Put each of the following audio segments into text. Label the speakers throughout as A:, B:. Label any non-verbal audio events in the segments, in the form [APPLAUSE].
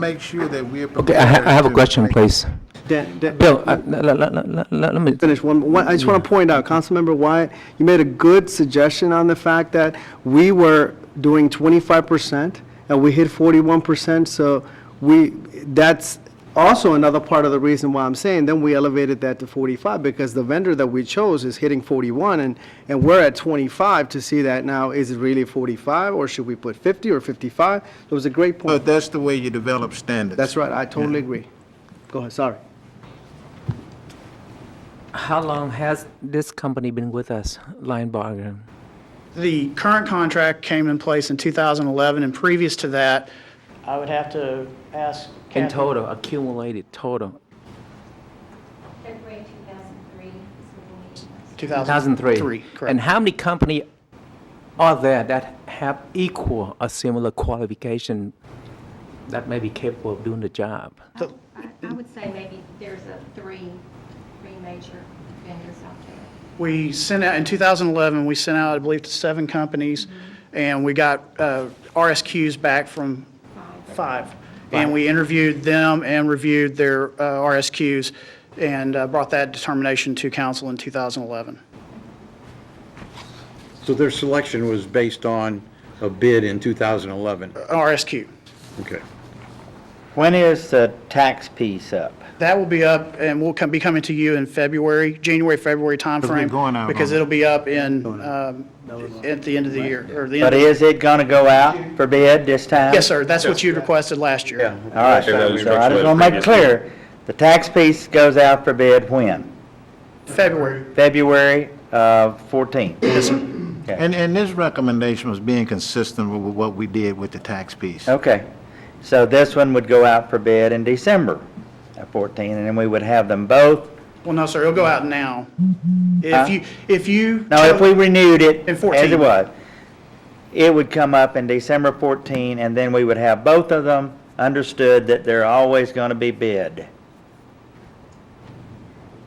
A: make sure that we're
B: Okay,
A: prepared.
B: I ha- I have a
A: to
B: question,
A: make-
B: please.
C: Dan, Dan-
B: Bill, I- le- le- le- le- le- let me,
C: finish one, one- I just want to point out, Councilmember Wyatt, you made a good suggestion on the fact that we were doing 25% and we hit 41%, so we, that's also another part of the reason why I'm saying, then we elevated that to 45, because the vendor that we chose is hitting 41, and, and we're at 25 to see that now, is it really 45, or should we put 50 or 55? It was a great point.
A: But that's the way you develop standards.
C: That's right, I totally agree. Go ahead, sorry.
B: how long has this company been with us, Lion Bargain?
D: The current contract came in place in 2011, and previous to that, I would have to ask
B: In
D: Kathy.
B: total, accumulated total,
E: February 2003 is when we
B: 2003?
D: correct.
B: And how many company are there that have equal or similar qualification that may be capable of doing the job?
E: I- I would say maybe there's a three, three major vendors out there.
D: We sent out, in 2011, we sent out, I believe, to seven companies, and we got uh, RSQs back from five. And we interviewed them and reviewed their uh, RSQs and uh, brought that determination to council in 2011.
F: So their selection was based on a bid in 2011?
D: RSQ.
F: Okay.
G: When is the tax piece up?
D: That will be up, and will come, be coming to you in February, January, February timeframe.
A: we're going out
D: Because
A: on-
D: it'll be up in, um, at the end of the year, or the
G: But
D: end.
G: is it going to go out for bid this time?
D: Yes, sir, that's what you requested last year.
G: All right, so I just want to make it clear, the tax piece goes out for bid when?
D: February.
G: February of 14.
A: And, and this recommendation was being consistent with what we did with the tax piece.
G: Okay, so this one would go out for bid in December of 14, and then we would have them both.
D: Well, no, sir, it'll go out now. If you, if you.
G: Now, if we renewed it
D: In
G: as
D: 14.
G: it was, it would come up in December 14, and then we would have both of them understood that they're always going to be bid.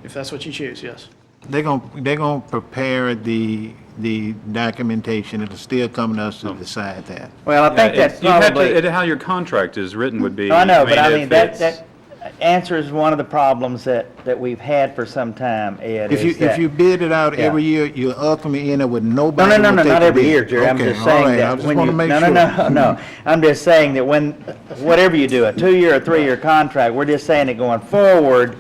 D: If that's what you choose, yes.
A: They're gonna, they're gonna prepare the, the documentation, it'll still come to us
G: Hmm.
A: to decide that.
G: Well, I think
H: Yeah, it-
G: that's
H: you have to-
G: probably.
H: it- How your contract is written would be.
G: I know, but I mean,
H: if
G: that,
H: it's-
G: that answers one of the problems that, that we've had for some time, Ed,
A: If you,
G: is
A: if you
G: that.
A: bid it out
G: yeah.
A: every year, you ultimately end up with nobody.
G: No, no,
A: who
G: no, no,
A: take
G: not
A: the
G: every
A: bid.
G: year, Jerry, I'm
A: Okay,
G: just
A: all
G: saying
A: right,
G: that.
A: I just
G: when
A: wanna
G: you-
A: make
G: no,
A: sure.
G: No, [LAUGHS] no, no, I'm just saying that when, whatever you do, a two-year or three-year contract, we're just saying that going forward,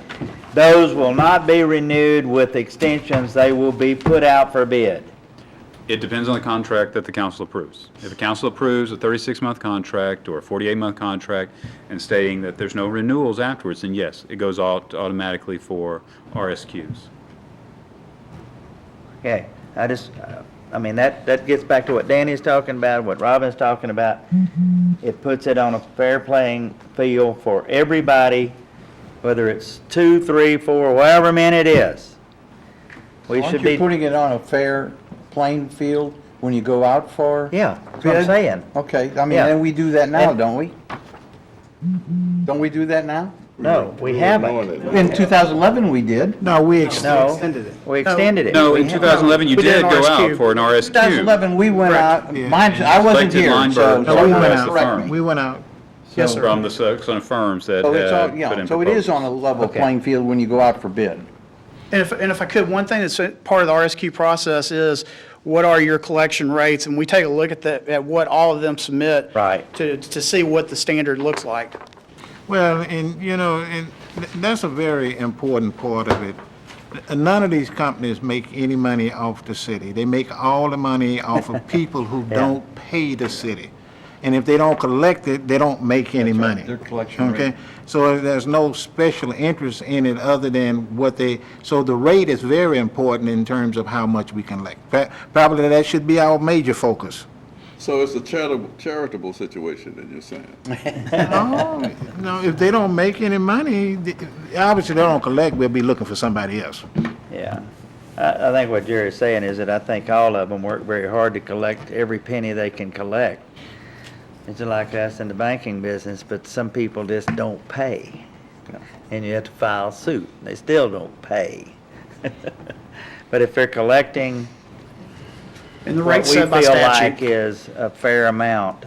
G: those will not be renewed with extensions, they will be put out for bid.
H: It depends on the contract that the council approves. If the council approves a 36-month contract or a 48-month contract and stating that there's no renewals afterwards, then yes, it goes out automatically for RSQs.
G: Okay, I just, uh, I mean, that, that gets back to what Danny's talking about, what Robin's talking about. It puts it on a fair playing field for everybody, whether it's two, three, four, however many it is. We
F: Aren't
G: should
F: you
G: be,
F: putting it on a fair playing field when you go out for?
G: yeah, that's what I'm
F: Bid?
G: saying.
F: Okay, I mean,
G: Yeah.
F: and we do that now,
G: And-
F: don't we? Don't we do that now?
G: No, we haven't.
F: In 2011, we did.
A: No, we extend
G: No, we extended it.
H: No,
G: We
H: in
G: haven't.
H: 2011, you
D: We did
H: did
D: an
H: go
D: RSQ.
H: out for an RSQ.
F: 2011, we went out, mine, I wasn't
H: Selected
F: here, so
H: Lineberg
A: No, we
F: someone
A: went
H: as
F: else
H: the
F: correct
H: firm.
F: me.
A: We went out,
D: Yes, sir.
H: From the Saxon firms that
F: So it's
H: had
F: all,
H: uh, put in
F: yeah, so it is on a
H: proposals.
F: level playing field when you go out for bid.
D: And if, and if I could, one thing that's part of the RSQ process is, what are your collection rates? And we take a look at that, at what all of them submit.
G: Right.
D: To, to see what the standard looks like.
A: well, and, you know, and th- that's a very important part of it. None of these companies make any money off the city. They make all the money off
F: [LAUGHS]
A: of people who don't pay the city. And if they don't collect it, they don't make any money.
F: their collection rate.
A: Okay? So there's no special interest in it other than what they, so the rate is very important in terms of how much we can collect. Pro- Probably that should be our major focus.
I: So it's a charitable, charitable situation, then you're saying?
A: No, [LAUGHS] no, if they don't make any money, th- obviously they don't collect, we'll be looking for somebody else.
G: Yeah. I, I think what Jerry's saying is that I think all of them work very hard to collect every penny they can collect. It's like us in the banking business, but some people just don't pay. And you have to file suit. They still don't pay. [LAUGHS] But if they're collecting
D: And the
G: what
D: rate
G: we feel
D: set by statute.
G: like is a fair amount,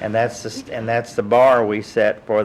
G: And that's, the- and that's the bar we set for